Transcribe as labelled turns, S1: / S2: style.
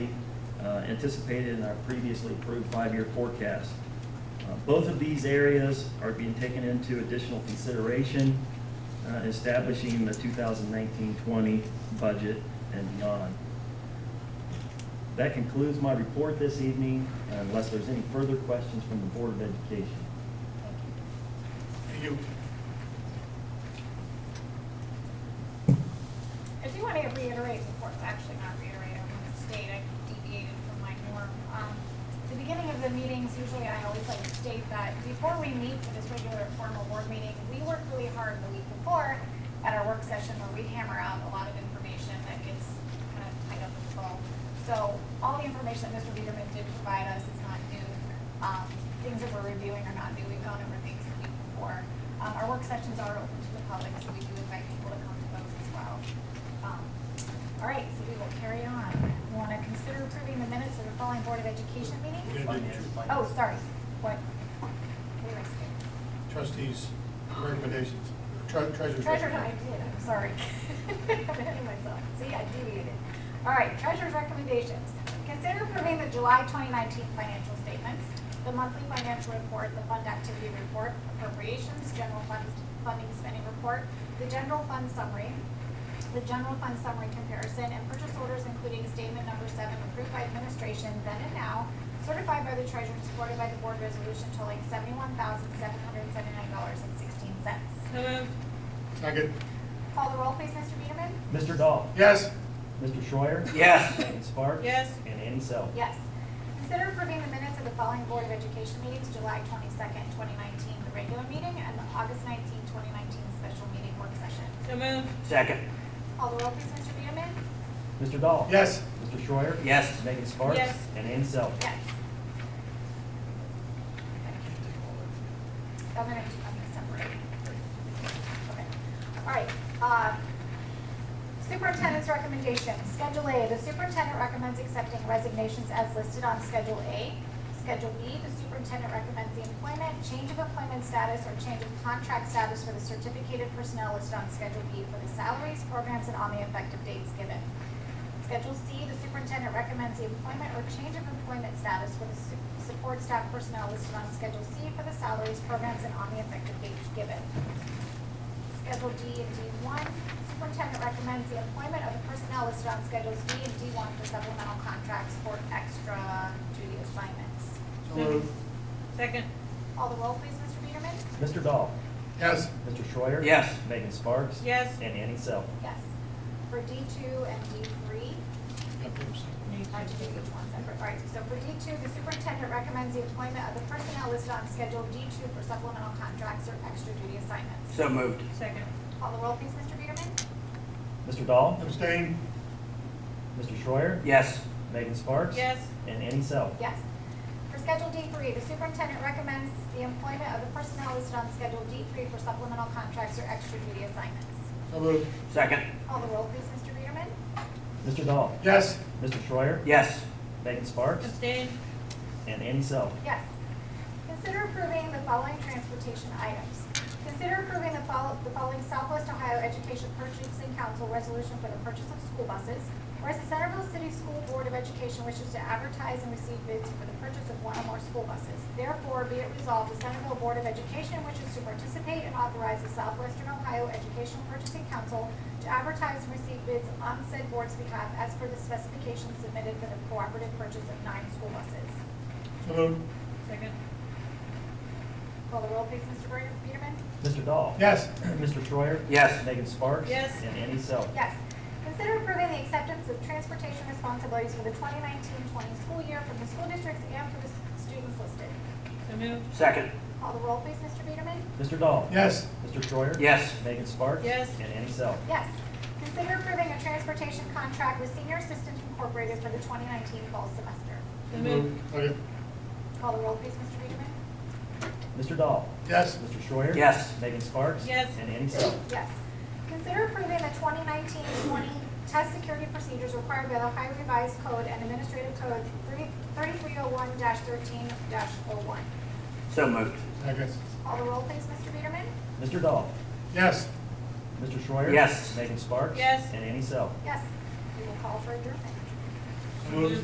S1: uh, anticipated in our previously approved five-year forecast. Uh, Both of these areas are being taken into additional consideration, uh, establishing the 2019-20 budget and beyond. That concludes my report this evening, unless there's any further questions from the Board of Education.
S2: Thank you.
S3: I do want to reiterate, before, actually not reiterate, I'm going to state, I deviated from my norm. Um, at The beginning of the meetings, usually I always like to state that before we meet for this regular formal board meeting, we work really hard the week before at our work session where we hammer out a lot of information that gets kind of tied up in the ball. So all the information that Mr. Biederman did provide us is not new. Um, Things that we're reviewing are not new, we've gone over things the week before. Um, Our work sessions are open to the public, so we do invite people to come to those as well. Um, All right, so we will carry on. We Want to consider approving the minutes of the following Board of Education
S2: We're
S3: meetings?
S2: gonna do two.
S3: Oh, sorry, what? Where did I skip?
S2: Trustees, recommendations, Tre- treasurer's.
S3: Treasure
S2: recommendation.
S3: hunt, I did, I'm sorry. I'm hitting myself. See, I deviated. All right, treasurer's recommendations. Consider approving the July 2019 financial statements, the monthly financial report, the fund activity report, appropriations, general fund funding spending report, the general fund summary, the general fund summary comparison, and purchase orders including statement number seven approved by administration then and now, certified by the treasurer, and supported by the board resolution totaling $71,779.16.
S4: So moved.
S2: Second,
S3: Call the roll, please, Mr. Beederman?
S1: Mr. Dahl?
S2: yes,
S1: Mr. Schreier?
S5: Yes.
S1: Megan Sparks?
S4: Yes.
S1: And Annie Self?
S3: Yes. Consider approving the minutes of the following Board of Education meetings, July twenty-second, twenty nineteen, the regular meeting, and the August nineteenth, twenty nineteen, special meeting work session.
S4: So moved.
S5: Second.
S3: Call the roll, please, Mr. Beederman?
S1: Mr. Dahl?
S2: yes,
S1: Mr. Schreier?
S5: Yes.
S1: Megan Sparks?
S4: Yes.
S1: And Annie Self?
S3: Yes. I'm gonna, I'm gonna separate. Okay. All right, uh, Superintendent's recommendation, Schedule A, the superintendent recommends accepting resignations as listed on Schedule A. Schedule B, the superintendent recommends the employment, change of employment status, or change of contract status for the certificated personnel listed on Schedule B for the salaries, programs, and on the effective dates given. Schedule C, the superintendent recommends the employment or change of employment status for the su- support staff personnel listed on Schedule C for the salaries, programs, and on the effective dates given. Schedule D and D1, superintendent recommends the employment of the personnel listed on Schedules D and D1 for supplemental contracts for extra duty assignments.
S2: so moved,
S4: Second.
S3: Call the roll, please, Mr. Beederman?
S1: Mr. Dahl?
S2: yes,
S1: Mr. Schreier?
S5: Yes.
S1: Megan Sparks?
S4: Yes.
S1: And Annie Self?
S3: Yes. For D2 and D3, I have to do each one separate. All right, so for D2, the superintendent recommends the employment of the personnel listed on Schedule D2 for supplemental contracts or extra duty assignments.
S5: So moved.
S4: Second.
S3: Call the roll, please, Mr. Beederman?
S1: Mr. Dahl?
S2: abstain,
S1: Mr. Schreier?
S5: Yes.
S1: Megan Sparks?
S4: Yes.
S1: And Annie Self?
S3: Yes. For Schedule D3, the superintendent recommends the employment of the personnel listed on Schedule D3 for supplemental contracts or extra duty assignments.
S2: so moved,
S5: Second.
S3: Call the roll, please, Mr. Beederman?
S1: Mr. Dahl?
S2: yes,
S1: Mr. Schreier?
S5: Yes.
S1: Megan Sparks?
S4: Abstain.
S1: And Annie Self?
S3: Yes. Consider approving the following transportation items. Consider approving the follow- the following Southwest Ohio Education Purchasing Council resolution for the purchase of school buses. Whereas the Centerville City School Board of Education wishes to advertise and receive bids for the purchase of one or more school buses. Therefore, be it resolved, the Centerville Board of Education wishes to participate and authorize the Southwestern Ohio Education Purchasing Council to advertise and receive bids on said board's behalf as per the specifications submitted for the cooperative purchase of nine school buses.
S2: so moved,
S4: Second.
S3: Call the roll, please, Mr. Bre- Beederman?
S1: Mr. Dahl?
S2: yes,
S1: Mr. Schreier?
S5: Yes.
S1: Megan Sparks?
S4: Yes.
S1: And Annie Self?
S3: Yes. Consider approving the acceptance of transportation responsibilities for the 2019-20 school year from the school districts and for the s- students listed.
S4: So moved.
S5: Second.
S3: Call the roll, please, Mr. Beederman?
S1: Mr. Dahl?
S2: yes,
S1: Mr. Schreier?
S5: Yes.
S1: Megan Sparks?
S4: Yes.
S1: And Annie Self?
S3: Yes. Consider approving a transportation contract with Senior Assistance Incorporated for the 2019 fall semester.
S4: So moved.
S2: moved, okay,
S3: Call the roll, please, Mr. Beederman?
S1: Mr. Dahl?
S2: yes,
S1: Mr. Schreier?
S5: Yes.
S1: Megan Sparks?
S4: Yes.
S1: And Annie Self?
S3: Yes. Consider approving the 2019-20 test security procedures required by the Ohio Revised Code and Administrative Code 3301-13-01.
S5: So moved.
S2: second,
S3: Call the roll, please, Mr. Beederman?
S1: Mr. Dahl?
S2: yes,
S1: Mr. Schreier?
S5: Yes.
S1: Megan Sparks?
S4: Yes.
S1: And Annie Self?
S3: Yes. We will call for adjournment.
S2: so moved.